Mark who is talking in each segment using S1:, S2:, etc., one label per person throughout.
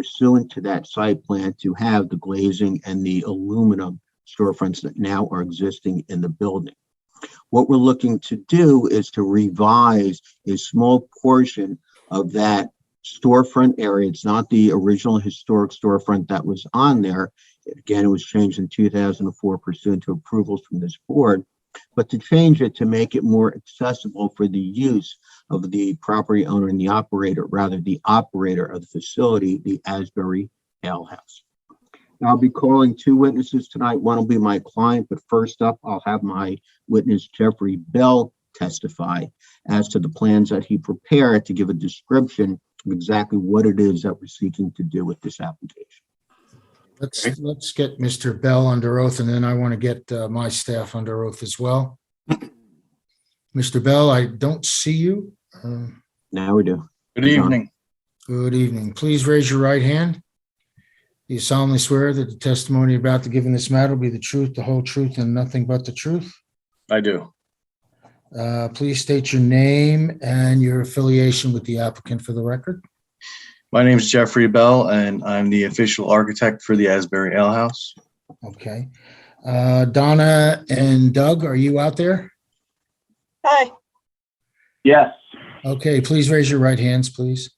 S1: pursuant to that site plan to have the glazing and the aluminum storefronts that now are existing in the building. What we're looking to do is to revise a small portion of that storefront area. It's not the original historic storefront that was on there. Again, it was changed in two thousand and four pursuant to approvals from this board. But to change it to make it more accessible for the use of the property owner and the operator, rather the operator of the facility, the Asbury Ale House. Now, I'll be calling two witnesses tonight. One will be my client, but first up, I'll have my witness Jeffrey Bell testify as to the plans that he prepared to give a description of exactly what it is that we're seeking to do with this application.
S2: Let's, let's get Mr. Bell under oath and then I want to get uh, my staff under oath as well. Mr. Bell, I don't see you. Uh,
S1: Now we do.
S3: Good evening.
S2: Good evening. Please raise your right hand. Do you solemnly swear that the testimony you're about to give in this matter will be the truth, the whole truth, and nothing but the truth?
S3: I do.
S2: Uh, Please state your name and your affiliation with the applicant for the record.
S3: My name is Jeffrey Bell, and I'm the official architect for the Asbury Ale House.
S2: Okay. Uh, Donna and Doug, are you out there?
S4: Hi,
S5: Yes,
S2: Okay, please raise your right hands, please.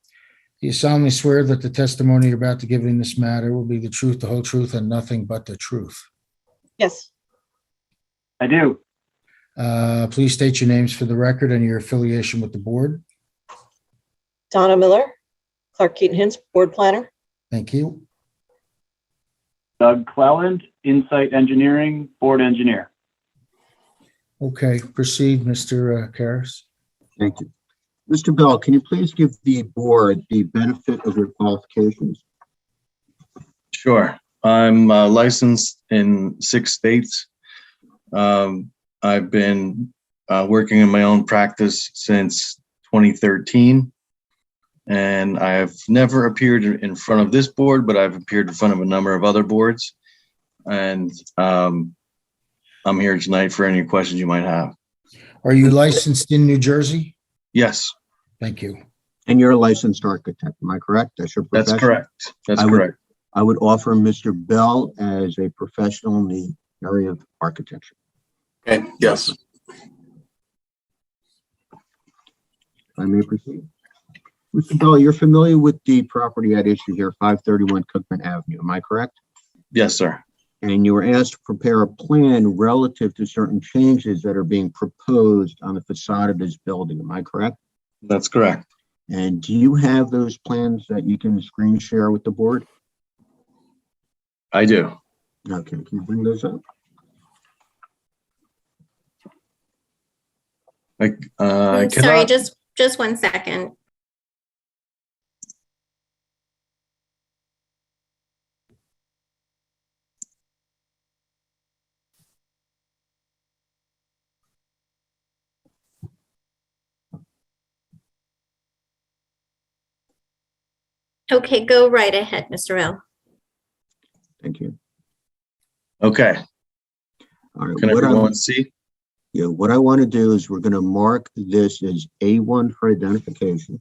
S2: Do you solemnly swear that the testimony you're about to give in this matter will be the truth, the whole truth, and nothing but the truth?
S4: yes,
S5: I do.
S2: Uh, Please state your names for the record and your affiliation with the board.
S4: Donna Miller, Clark Keaton Hins, Board Planner.
S2: Thank you.
S5: Doug Cleland, Insight Engineering, Board Engineer.
S2: Okay, proceed, uh, Mr. Karas.
S1: Thank you. Mr. Bell, can you please give the board the benefit of your qualifications?
S3: Sure. I'm uh, licensed in six states. Um, I've been uh, working in my own practice since 2013. And I have never appeared in front of this board, but I've appeared in front of a number of other boards. And um, I'm here tonight for any questions you might have.
S2: Are you licensed in New Jersey?
S3: Yes,
S2: Thank you.
S1: And you're a licensed architect, am I correct? That's your
S3: that's
S1: profession?
S3: correct. That's
S1: I would-
S3: correct.
S1: I would offer Mr. Bell as a professional in the area of architecture.
S3: Okay, yes.
S1: If I may proceed. Mr. Bell, you're familiar with the property at issue here, 531 Cookman Avenue, am I correct?
S3: Yes, sir.
S1: and you were asked to prepare a plan relative to certain changes that are being proposed on the facade of this building, am I correct?
S3: That's correct.
S1: And do you have those plans that you can screen share with the board?
S3: I do.
S1: Okay, can you bring those up?
S3: Like, uh, I
S6: I'm Mm, sorry,
S3: cannot,
S6: just, just one second. Okay, go right ahead, Mr. L.
S1: Thank you.
S3: okay.
S1: All right,
S3: Can
S1: what I'm-
S3: everyone see?
S1: Yeah, what I want to do is we're going to mark this as A1 for identification.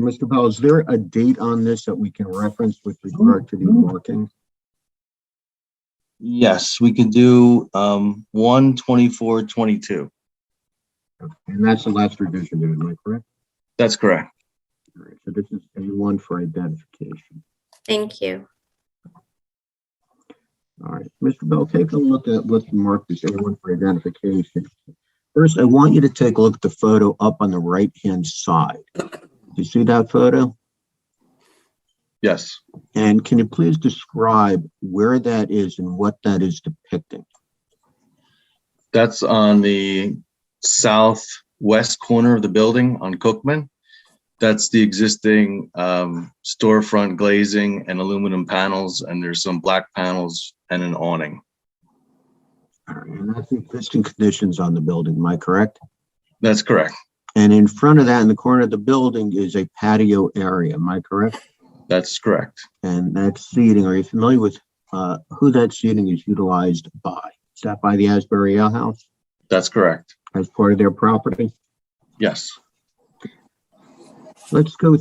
S1: Mr. Bell, is there a date on this that we can reference with regard to the marking?
S3: Yes, we can do, um, one twenty-four, twenty-two.
S1: And that's the last revision, am I correct?
S3: That's correct.
S1: All right, so this is A1 for identification.
S6: Thank you.
S1: All right, Mr. Bell, take a look at what's marked as A1 for identification. First, I want you to take a look at the photo up on the right-hand side. Do you see that photo?
S3: Yes.
S1: And can you please describe where that is and what that is depicting?
S3: That's on the southwest corner of the building on Cookman. That's the existing, um, storefront glazing and aluminum panels, and there's some black panels and an awning.
S1: All right, and that's the existing conditions on the building, am I correct?
S3: That's correct.
S1: And in front of that, in the corner of the building, is a patio area, am I correct?
S3: That's correct.
S1: And that seating, are you familiar with uh, who that seating is utilized by? Is that by the Asbury Ale House
S3: That's correct.
S1: as part of their property?
S3: Yes.
S1: Let's go